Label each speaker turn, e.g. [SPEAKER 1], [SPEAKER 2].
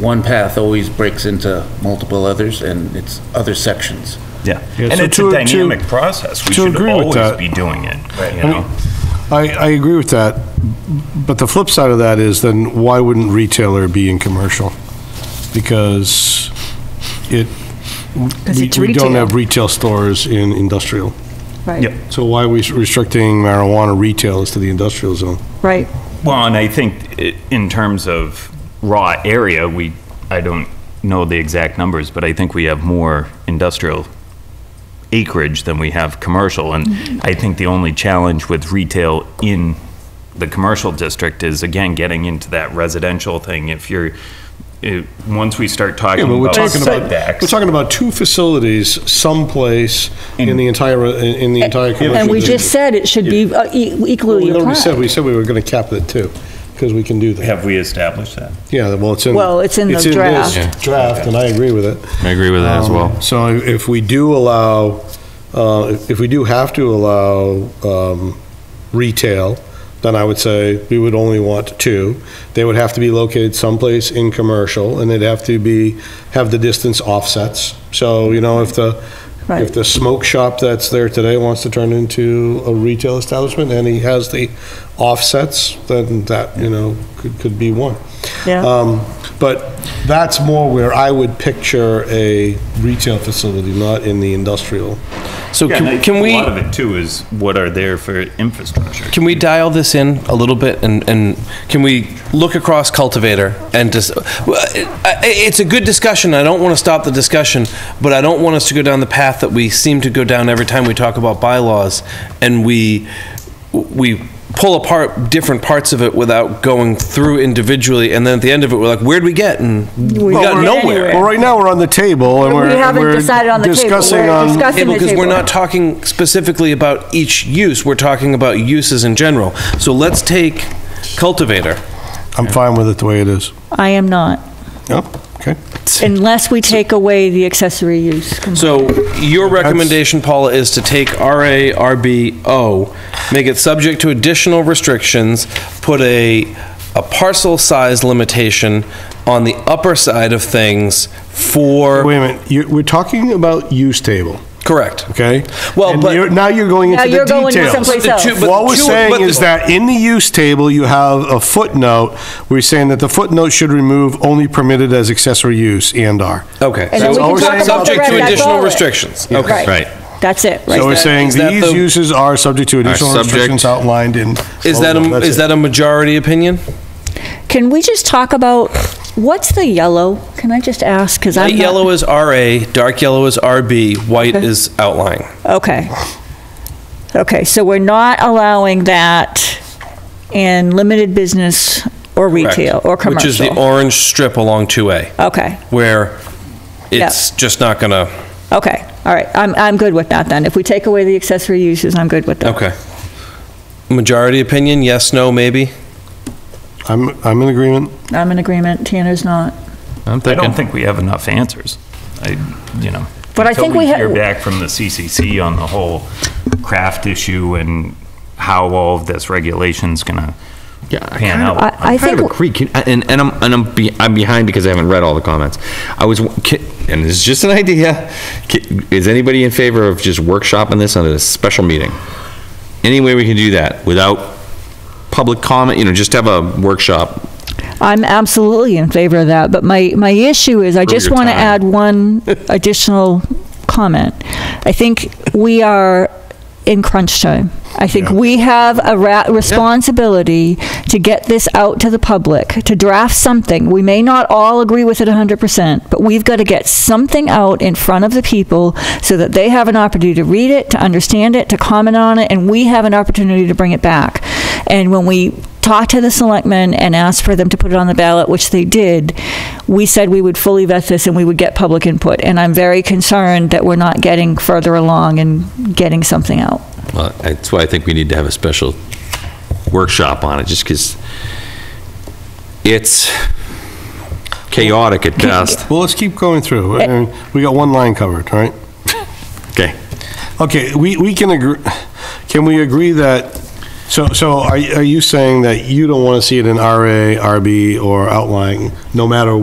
[SPEAKER 1] one path always breaks into multiple others and it's other sections.
[SPEAKER 2] Yeah,
[SPEAKER 3] Yeah,
[SPEAKER 2] and
[SPEAKER 3] so
[SPEAKER 2] it's
[SPEAKER 3] to-
[SPEAKER 2] a
[SPEAKER 3] to-
[SPEAKER 2] dynamic process. We
[SPEAKER 3] to
[SPEAKER 2] should
[SPEAKER 3] agree with
[SPEAKER 2] always
[SPEAKER 3] that-
[SPEAKER 2] be doing it, you
[SPEAKER 3] I mean,
[SPEAKER 2] know?
[SPEAKER 3] I, I agree with that, but the flip side of that is then why wouldn't retailer be in commercial? Because it, we
[SPEAKER 4] it's
[SPEAKER 3] we don't
[SPEAKER 4] retail.
[SPEAKER 3] have retail stores in industrial.
[SPEAKER 4] Right,
[SPEAKER 3] So why are we restricting marijuana retailers to the industrial zone?
[SPEAKER 4] right.
[SPEAKER 2] Well, and I think i- in terms of raw area, we, I don't know the exact numbers, but I think we have more industrial acreage than we have commercial. And I think the only challenge with retail in the commercial district is, again, getting into that residential thing. If you're, it- once we start talking
[SPEAKER 3] Yeah, but we're
[SPEAKER 2] about
[SPEAKER 3] talking about,
[SPEAKER 2] setbacks.
[SPEAKER 3] we're talking about two facilities someplace in the entire, in in the entire commercial
[SPEAKER 4] And we
[SPEAKER 3] district.
[SPEAKER 4] just said it should be uh, e-
[SPEAKER 3] Well,
[SPEAKER 4] equally
[SPEAKER 3] we already said,
[SPEAKER 4] applied.
[SPEAKER 3] we said we were going to cap it too, because we can do that.
[SPEAKER 2] Have we established that?
[SPEAKER 3] Yeah, well, it's in.
[SPEAKER 4] Well, it's in the
[SPEAKER 3] this
[SPEAKER 4] draft.
[SPEAKER 5] Yeah.
[SPEAKER 3] Draft, and I agree with it.
[SPEAKER 5] I agree with that as well.
[SPEAKER 3] Um, So if we do allow, uh, if we do have to allow um, retail, then I would say we would only want two. They would have to be located someplace in commercial, and they'd have to be, have the distance offsets. So, you know, if the, if
[SPEAKER 4] Right.
[SPEAKER 3] the smoke shop that's there today wants to turn into a retail establishment, and he has the offsets, then that, you know, could, could be one.
[SPEAKER 4] Yeah.
[SPEAKER 3] Um, But that's more where I would picture a retail facility, not in the industrial.
[SPEAKER 5] So
[SPEAKER 2] Yeah, and I
[SPEAKER 5] can,
[SPEAKER 2] think
[SPEAKER 5] can we?
[SPEAKER 2] A lot of it too is what are there for infrastructure.
[SPEAKER 5] Can we dial this in a little bit and, and can we look across cultivator and just, well, it- I- it's a good discussion. I don't want to stop the discussion, but I don't want us to go down the path that we seem to go down every time we talk about bylaws and we, we pull apart different parts of it without going through individually. And then at the end of it, we're like, where'd we get? And we
[SPEAKER 4] Well,
[SPEAKER 5] got
[SPEAKER 4] we're-
[SPEAKER 5] nowhere.
[SPEAKER 3] Well, right now, we're on the table, and
[SPEAKER 4] We
[SPEAKER 3] we're
[SPEAKER 4] haven't
[SPEAKER 3] we're
[SPEAKER 4] decided on the table.
[SPEAKER 3] discussing
[SPEAKER 4] We're
[SPEAKER 3] on-
[SPEAKER 4] discussing-
[SPEAKER 5] Table,
[SPEAKER 4] the
[SPEAKER 5] because we're
[SPEAKER 4] table.
[SPEAKER 5] not talking specifically about each use, we're talking about uses in general. So let's take cultivator.
[SPEAKER 3] I'm fine with it the way it is.
[SPEAKER 4] I am not,
[SPEAKER 3] Yep, okay.
[SPEAKER 4] unless we take away the accessory use.
[SPEAKER 5] So your recommendation, Paula, is to take RA, RB, O, make it subject to additional restrictions, put a, a parcel size limitation on the upper side of things for,
[SPEAKER 3] Wait a minute, you we're talking about use table,
[SPEAKER 5] correct.
[SPEAKER 3] okay?
[SPEAKER 5] Well,
[SPEAKER 3] And
[SPEAKER 5] but-
[SPEAKER 3] you're- Now you're going
[SPEAKER 4] Now
[SPEAKER 3] into the
[SPEAKER 4] you're going
[SPEAKER 3] details.
[SPEAKER 4] someplace
[SPEAKER 5] But the two-
[SPEAKER 4] else.
[SPEAKER 5] but
[SPEAKER 3] What we're
[SPEAKER 5] two- but
[SPEAKER 3] saying
[SPEAKER 5] the-
[SPEAKER 3] is that in the use table, you have a footnote, we're saying that the footnote should remove only permitted as accessory use and are.
[SPEAKER 5] Okay.
[SPEAKER 4] And then
[SPEAKER 3] we can
[SPEAKER 5] So-
[SPEAKER 3] talk about the
[SPEAKER 5] Subject
[SPEAKER 3] rest,
[SPEAKER 5] to
[SPEAKER 3] that's
[SPEAKER 5] additional
[SPEAKER 4] all it-
[SPEAKER 5] restrictions, okay.
[SPEAKER 4] Right. That's it,
[SPEAKER 3] So we're
[SPEAKER 4] right?
[SPEAKER 3] saying
[SPEAKER 5] is that
[SPEAKER 3] these
[SPEAKER 5] the-
[SPEAKER 3] uses are subject to additional
[SPEAKER 5] subject-
[SPEAKER 3] restrictions outlined in.
[SPEAKER 5] Is that,
[SPEAKER 3] Oh,
[SPEAKER 5] a-
[SPEAKER 3] that's
[SPEAKER 5] is
[SPEAKER 3] it.
[SPEAKER 5] that a majority opinion?
[SPEAKER 4] Can we just talk about, what's the yellow? Can I just ask? Because I'm
[SPEAKER 5] Light
[SPEAKER 4] not-
[SPEAKER 5] yellow is RA, dark yellow is RB, white
[SPEAKER 4] Okay.
[SPEAKER 5] is outlying.
[SPEAKER 4] Okay. Okay, so we're not allowing that in limited business or
[SPEAKER 5] correct?
[SPEAKER 4] retail or commercial?
[SPEAKER 5] Which is the orange strip along 2A,
[SPEAKER 4] Okay,
[SPEAKER 5] where it's just not gonna,
[SPEAKER 4] okay, all right. I'm, I'm good with that then. If we take away the accessory uses, I'm good with that.
[SPEAKER 5] okay. Majority opinion, yes, no, maybe?
[SPEAKER 3] I'm, I'm in agreement.
[SPEAKER 4] I'm in agreement, Tanner's not.
[SPEAKER 2] I'm thinking. I don't think we have enough answers. I, you know.
[SPEAKER 4] But I
[SPEAKER 2] until
[SPEAKER 4] think we ha-
[SPEAKER 2] hear back from the CCC on the whole craft issue and how all of this regulation's gonna
[SPEAKER 6] Yeah, I
[SPEAKER 2] pan
[SPEAKER 6] kinda-
[SPEAKER 2] out.
[SPEAKER 4] I-
[SPEAKER 6] I kind of
[SPEAKER 4] think-
[SPEAKER 6] agree, Can- and, and I'm, and I'm, be- I'm behind because I haven't read all the comments. I was, ki- and this is just an idea, Ki- is anybody in favor of just workshopping this on a special meeting? Any way we can do that without public comment, you know, just have a workshop.
[SPEAKER 4] I'm absolutely in favor of that, but my, my issue is I
[SPEAKER 6] Prove
[SPEAKER 4] just
[SPEAKER 6] your
[SPEAKER 4] want to
[SPEAKER 6] time.
[SPEAKER 4] add one additional comment. I think we are in crunch time. I think we have a ra- responsibility to get this out to the public, to draft something. We may not all agree with it 100%, but we've got to get something out in front of the people so that they have an opportunity to read it, to understand it, to comment on it, and we have an opportunity to bring it back. And when we talk to the selectmen and ask for them to put it on the ballot, which they did, we said we would fully vet this and we would get public input. And I'm very concerned that we're not getting further along and getting something out.
[SPEAKER 6] Well, That's why I think we need to have a special workshop on it, just because it's chaotic at best.
[SPEAKER 3] Well, let's keep going through.
[SPEAKER 4] Eh.
[SPEAKER 3] I mean, We got one line covered, all right?
[SPEAKER 6] Okay.
[SPEAKER 3] Okay, we, we can agree, can we agree that, so, so are, you- are you saying that you don't want to see it in RA, RB, or outlying, no matter